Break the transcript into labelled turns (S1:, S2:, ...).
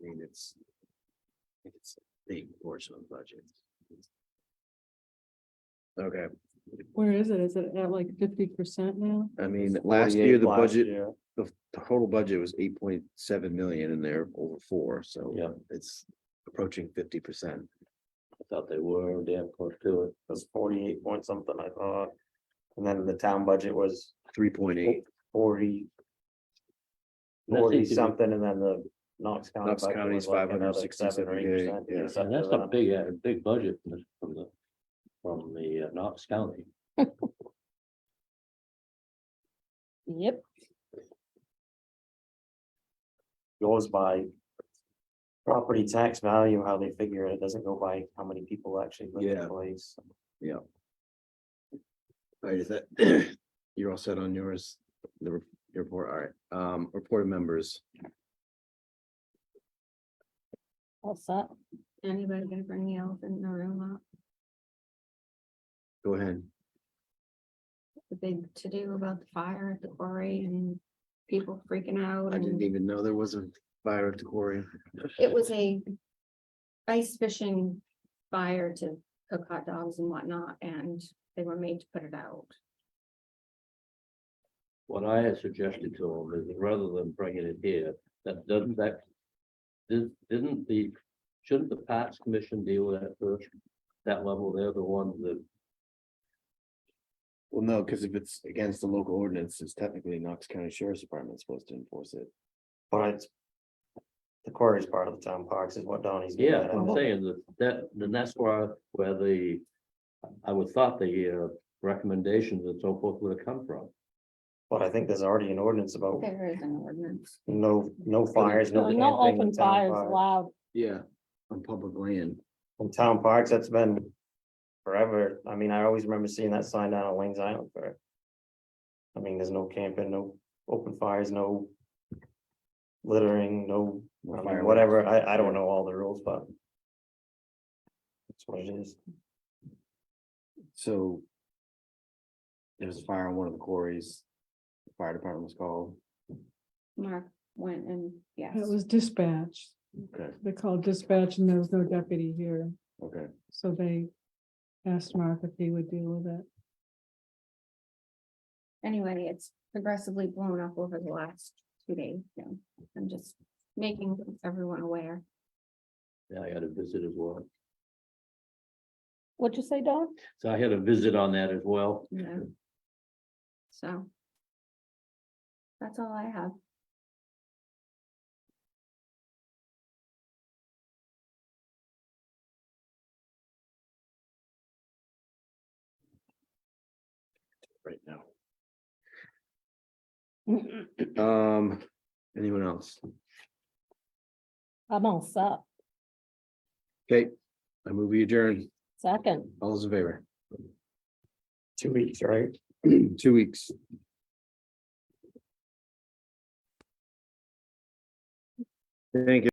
S1: I mean, it's. I think It's a big portion of the budget. Okay,
S2: Where is it? Is it at like fifty percent now?
S1: I mean, last year, the
S3: 48 last
S1: budget,
S3: year.
S1: the the total budget was eight point seven million and they're over four, so.
S3: Yeah.
S1: It's approaching fifty percent.
S3: I thought they were damn close to it. It was forty-eight point something, I thought. And then the town budget was
S1: Three point eight,
S3: forty.
S4: That
S3: Forty
S4: seems to be-
S3: something, and then the Knox County.
S1: Knox
S3: budget
S1: County's
S3: was like another
S1: 567
S3: 7 or 8%,
S1: day, yeah.
S3: or
S4: And
S3: something
S4: that's
S3: like
S4: a
S3: that.
S4: big, a big budget from the- from the, from the uh, Knox County.
S2: Yep.
S3: Goes by. Property tax value, how they figure it, it doesn't go by how many people actually live in
S1: Yeah.
S3: the place.
S1: all right, is that, you're all set on yours, the re- your report, all right, um, report of members,
S2: What's that? Anybody gonna bring the elephant in the room
S5: uh,
S2: up?
S1: go ahead.
S5: the big to-do about the fire at the quarry and people freaking out.
S1: I didn't
S5: and
S1: even know there was a fire at the quarry.
S5: It was a ice fishing fire to cook hot dogs and whatnot, and they were made to put it out.
S4: What I had suggested to them is rather than bringing it here, that doesn't that. Did, didn't the, shouldn't the Pats Commission deal with that first? That level, they're the ones that,
S1: Well, no, because if it's against the local ordinance, it's technically Knox County Sheriff's Department supposed to enforce it.
S3: But it's. The quarry is part of the town parks is what Donnie's. getting
S4: yeah,
S3: at.
S4: I'm saying that, that, then that's where, where the. I would thought the uh, recommendations and so forth would have come from.
S3: But I think there's already an ordinance about
S5: There is an ordinance.
S3: no, no fires, no camping in town parks.
S2: allowed.
S1: Yeah, on public land.
S3: In town parks, that's been forever. I mean, I always remember seeing that sign down on Wayne's Island for. I mean, there's no camping, no open fires, no. Littering, no, I mean, whatever. I, I don't know all the rules, but. That's what it is.
S1: So. There was a fire on one of the quarries. The Fire department was called.
S5: Mark went and, yes,
S2: It was dispatch.
S1: Okay,
S2: They called dispatch and there was no deputy here,
S1: okay.
S2: so they asked Mark if he would deal with it.
S5: anyway, it's progressively blown up over the last two days, so I'm just making everyone aware.
S4: Yeah, I had a visit as well.
S2: What'd you say, Don?
S4: So I had a visit on that as well.
S5: you know. So. That's all I have.
S1: Right now. Um, anyone else?
S6: I'm all set.
S1: Okay, I move we adjourn.
S6: Second,
S1: All those in favor?
S3: Two weeks, right?
S1: Two weeks. Thank you.